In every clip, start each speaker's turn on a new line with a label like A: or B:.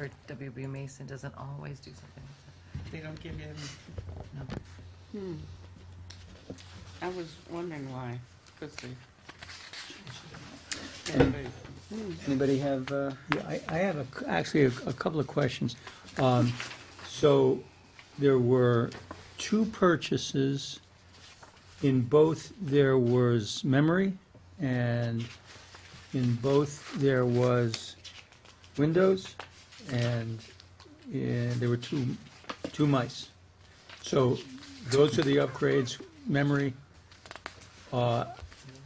A: Or WB Mason doesn't always do something
B: They don't give you any.
A: like that.
B: Hmm. I was wondering why, because they. Anyway,
C: Anybody have, uh,
D: Yeah, I, I have a c actually, a, a couple of questions. Um, so there were two purchases. In both, there was memory, and in both, there was windows, and, uh there were two, two mice. So those are the upgrades, memory, uh,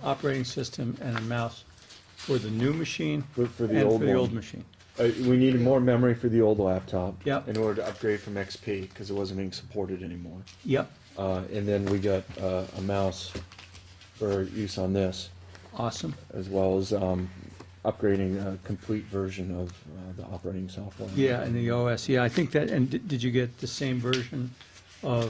D: operating system, and a mouse for the new machine.
E: For, for the
D: And
E: old
D: for the
E: one.
D: old machine.
E: Uh, we needed more memory for the old laptop.
D: Yep.
E: In order to upgrade from XP because it wasn't being supported anymore.
D: Yep,
E: Uh, and then we got uh, a mouse for use on this,
D: awesome.
E: as well as um, upgrading a complete version of uh, the operating software.
D: Yeah, and the OS, yeah, I think that, and did did you get the same version of,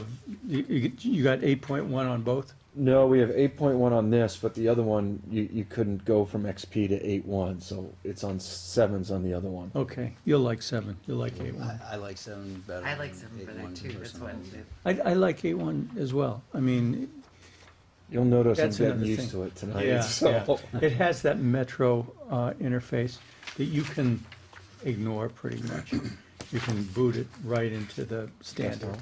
D: you, you get- you got 8.1 on both?
E: No, we have 8.1 on this, but the other one you, you couldn't go from XP to 8.1, so it's on sevens on the other one.
D: Okay, you'll like 7, you'll like 8.1.
F: I, I like seven better.
A: I like
F: than
A: seven
F: eight
A: better
F: one
A: too, that's
F: personally.
A: one.
D: I, I like 8.1 as well, I mean,
E: You'll notice
D: That's
E: I'm
D: another
E: getting used
D: thing.
E: to it tonight.
D: yeah,
E: so.
D: yeah. It has that Metro uh, interface that you can ignore pretty much. You can boot it right into the standard.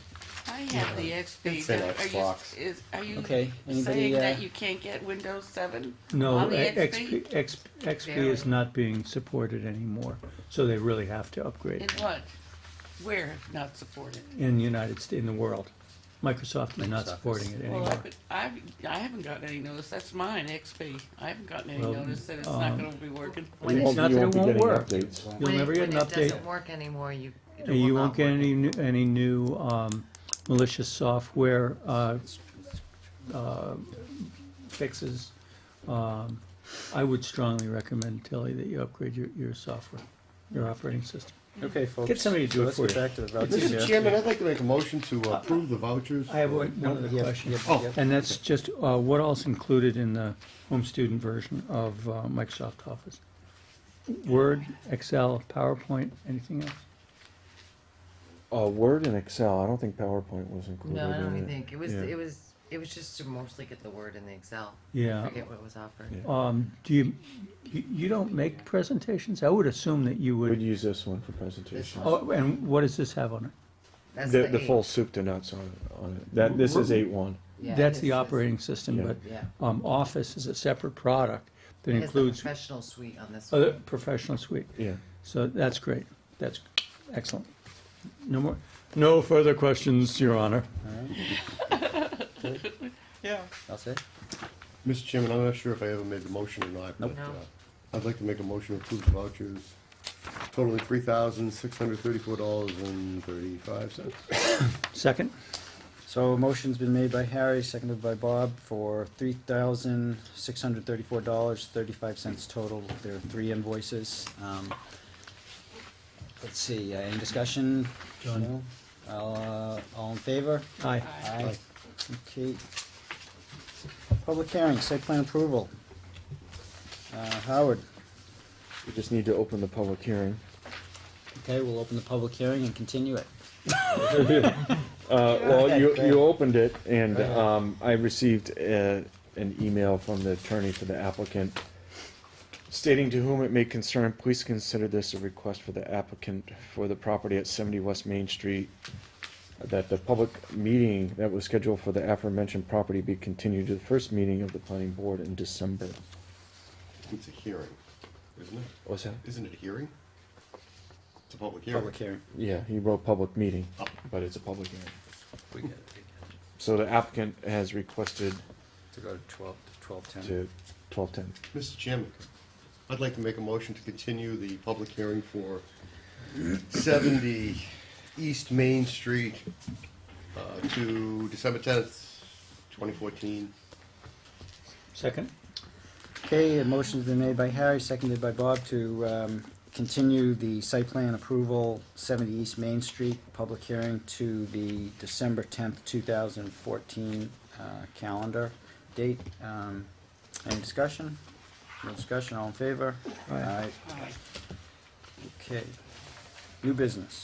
B: I have the XP.
F: Say
B: Are you,
F: Xbox.
B: is, are you
F: Okay,
B: saying
F: anybody, uh,
B: that you can't get Windows seven?
D: No,
B: on the
D: XP, X- XP is
A: Barely.
D: not being supported anymore, so they really have to upgrade.
B: In
D: it.
B: what? Where if not supported?
D: in the United States, in the world. Microsoft is not
F: Microsoft
D: supporting
F: is-
D: it
B: Well,
D: anymore.
B: I've, been- I've, I haven't gotten any notice, that's mine, XP. I haven't gotten any
D: Well,
B: notice that it's not
D: um,
B: gonna be working.
A: When
E: You
A: it-
D: It's
E: won't,
D: not
E: you
D: that it
E: won't be
D: won't
E: getting
D: work.
E: updates.
D: You'll
A: When it-
D: never get an
A: When it
D: update,
A: doesn't work anymore, you. it
D: and you
A: will
D: won't
A: not
D: get
A: work
D: any, new
A: anymore.
D: any new um, malicious software uh, uh, fixes. Um, I would strongly recommend, Tilly, that you upgrade your, your software, your operating system.
C: okay, folks.
D: Get somebody to do it
C: Let's
D: for
C: get
D: you.
C: back to the vouchers.
G: Mr. Chairman, I'd like to make a motion to approve the vouchers.
D: I have one one other
C: Yes,
D: question.
F: Oh.
C: yes, yes.
D: And that's just, uh, what else included in the home student version of uh, Microsoft Office? Word, Excel, PowerPoint, anything else?
E: Uh, Word and Excel. I don't think PowerPoint was included.
A: No, I
E: in
A: don't
E: it.
A: even think, it was,
E: Yeah.
A: it was, it was just to mostly get the word in the Excel.
D: Yeah.
A: Forget what was offered.
E: Yeah.
D: Um, do you, you, you don't make presentations? I would assume that you
E: We'd
D: would.
E: use this one for presentation.
A: This one.
D: Oh, and what does this have on it?
A: That's
E: Oh, The, the
A: eight.
E: full soup to nuts on, on it. That, this is eight one.
A: Yeah,
D: That's
A: it
D: the
A: is-
D: operating system,
E: Yeah.
D: but,
A: Yeah.
D: um, Office is a separate product that
A: It has the
D: includes
A: professional suite on this
D: other
A: one.
D: professional suite.
E: Yeah.
D: So that's great. That's excellent. No more, no further questions, Your Honor.
B: Yeah.
F: That's it?
G: Mr. Chairman, I'm not sure if I ever made the motion or not, but
A: No.
G: uh, I'd like to make a motion to approve the vouchers totaling three thousand six hundred thirty-four dollars and thirty-five cents.
D: Second?
F: So a motion's been made by Harry, seconded by Bob for three thousand six hundred thirty-four dollars, thirty-five cents total. There are three invoices. Um, let's see, uh, any discussion?
D: Done.
F: No? All, uh, all in favor?
D: Aye.
F: Aye. Okay. Public hearing, site plan approval. Uh, Howard,
E: We just need to open the public hearing.
F: okay, we'll open the public hearing and continue it.
E: Uh, well,
F: ahead,
E: you,
F: go ahead.
E: you opened it and,
F: Go ahead.
E: um, I received, uh, an email from the attorney for the applicant stating to whom it may concern, please consider this a request for the applicant for the property at seventy West Main Street that the public meeting that was scheduled for the aforementioned property be continued to the first meeting of the planning board in December.
G: It's a hearing, isn't it?
E: What's that?
G: Isn't it a hearing? It's a public hearing.
F: Public hearing.
E: Yeah, he wrote public meeting, but it's a public hearing. So the applicant has requested
F: To go to twelve, to twelve-ten.
E: to twelve-ten.
G: Mr. Chairman, I'd like to make a motion to continue the public hearing for 70 East Main Street uh, to December 10th, 2014.
D: Second?
F: Okay, a motion's been made by Harry, seconded by Bob to, um, continue the site plan approval, seventy East Main Street, public hearing to the December tenth, two thousand fourteen, uh, calendar date. Um, any discussion? No discussion, all in favor?
D: Aye.
F: Okay. New business.